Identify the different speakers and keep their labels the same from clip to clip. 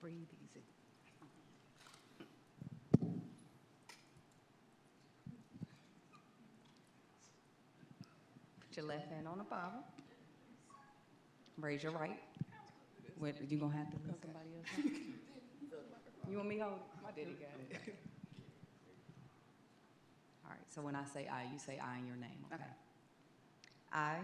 Speaker 1: breathe easy. Put your left hand on the Bible. Raise your right. Wait, you gonna have to let somebody else? know? You want me to hold it? My daddy got it. All right, so when I say I, you say I in your name, okay?
Speaker 2: Okay.
Speaker 1: I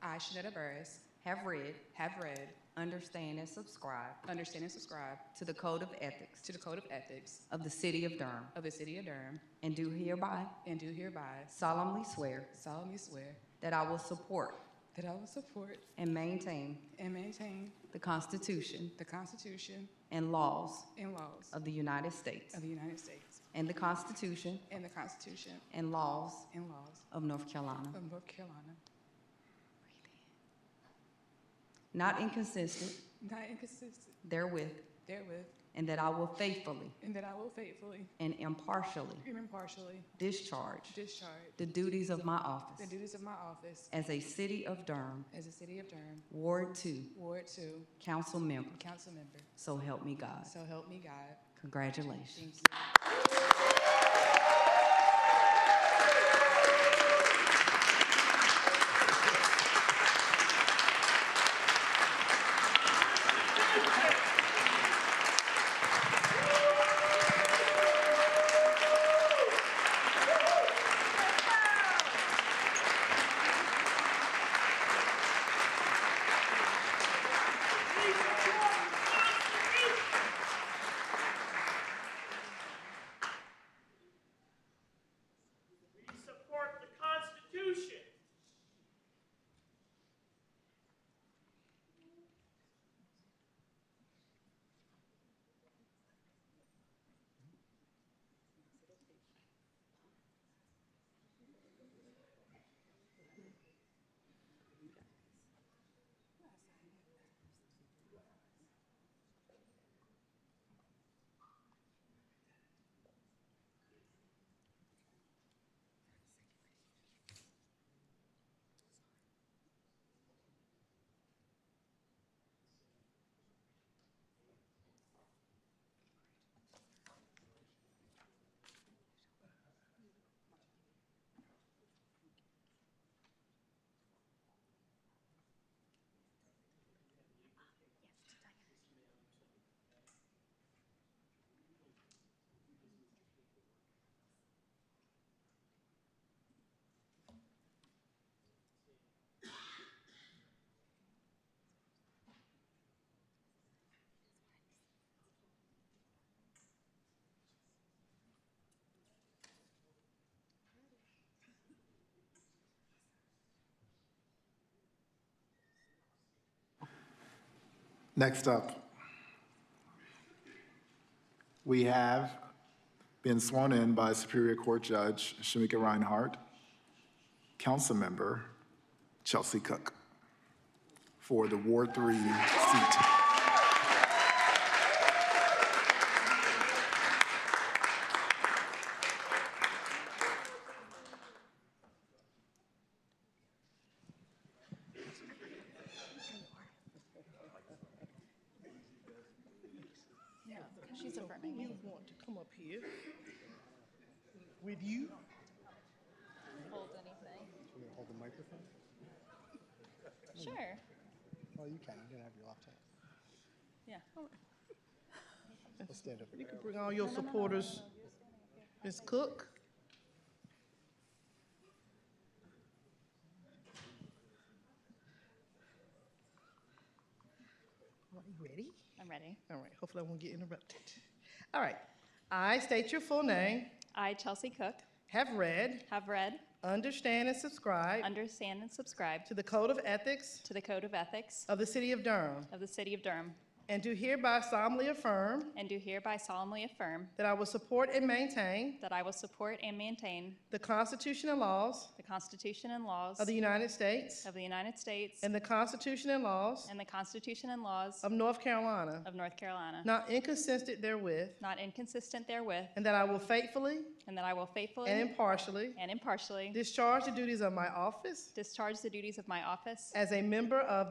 Speaker 2: I, Shanetta Burris,
Speaker 1: have read,
Speaker 2: have read,
Speaker 1: understand, and subscribe
Speaker 2: understand, and subscribe
Speaker 1: to the Code of Ethics
Speaker 2: to the Code of Ethics
Speaker 1: of the City of Durham
Speaker 2: of the City of Durham,
Speaker 1: and do hereby
Speaker 2: and do hereby
Speaker 1: solemnly swear
Speaker 2: solemnly swear
Speaker 1: that I will support
Speaker 2: that I will support
Speaker 1: and maintain
Speaker 2: and maintain
Speaker 1: the Constitution
Speaker 2: the Constitution
Speaker 1: and laws
Speaker 2: and laws
Speaker 1: of the United States
Speaker 2: of the United States
Speaker 1: and the Constitution
Speaker 2: and the Constitution
Speaker 1: and laws
Speaker 2: and laws
Speaker 1: of North Carolina,
Speaker 2: of North Carolina,
Speaker 1: not inconsistent
Speaker 2: not inconsistent
Speaker 1: therewith,
Speaker 2: therewith,
Speaker 1: and that I will faithfully
Speaker 2: and that I will faithfully
Speaker 1: and impartially
Speaker 2: and impartially
Speaker 1: discharge
Speaker 2: discharge
Speaker 1: the duties of my
Speaker 2: the
Speaker 1: office
Speaker 2: duties of my office
Speaker 1: as a City of Durham
Speaker 2: as a City of Durham
Speaker 1: Ward 2
Speaker 2: Ward 2
Speaker 1: Council Member.
Speaker 2: Council Member.
Speaker 1: So help me God.
Speaker 2: So help me God.
Speaker 1: Congratulations.
Speaker 2: Thank you.
Speaker 3: We support the Constitution.
Speaker 4: Next up, we have been sworn in by Superior Court Judge Shamika Reinhardt, Councilmember Chelsea Cook for the Ward 3 seat.
Speaker 5: She's affirming You want to come up here with you?
Speaker 6: hold anything. Sure.
Speaker 7: Oh, you can. You don't have your laptop.
Speaker 6: Yeah.
Speaker 7: I'll stand up.
Speaker 5: You can bring all your supporters. Ms. Cook? Are you ready?
Speaker 6: I'm ready.
Speaker 5: All right, hopefully I won't get interrupted. All right. I state your full name,
Speaker 6: I, Chelsea Cook,
Speaker 5: have read,
Speaker 6: have read,
Speaker 5: understand, and subscribe
Speaker 6: understand, and subscribe
Speaker 5: to the Code of Ethics
Speaker 6: to the Code of Ethics
Speaker 5: of the City of Durham,
Speaker 6: of the City of Durham,
Speaker 5: and do hereby solemnly affirm
Speaker 6: and do hereby solemnly affirm
Speaker 5: That I will support and maintain
Speaker 6: that I will support and maintain
Speaker 5: the Constitution and laws
Speaker 6: the Constitution and laws
Speaker 5: of the United States
Speaker 6: of the United States
Speaker 5: and the Constitution and laws
Speaker 6: and the Constitution and laws
Speaker 5: of North Carolina,
Speaker 6: of North Carolina,
Speaker 5: not inconsistent therewith,
Speaker 6: not inconsistent therewith,
Speaker 5: and that I will faithfully
Speaker 6: and that I will faithfully
Speaker 5: and impartially
Speaker 6: and impartially
Speaker 5: discharge the duties of my office
Speaker 6: discharge the duties of my office
Speaker 5: as a member of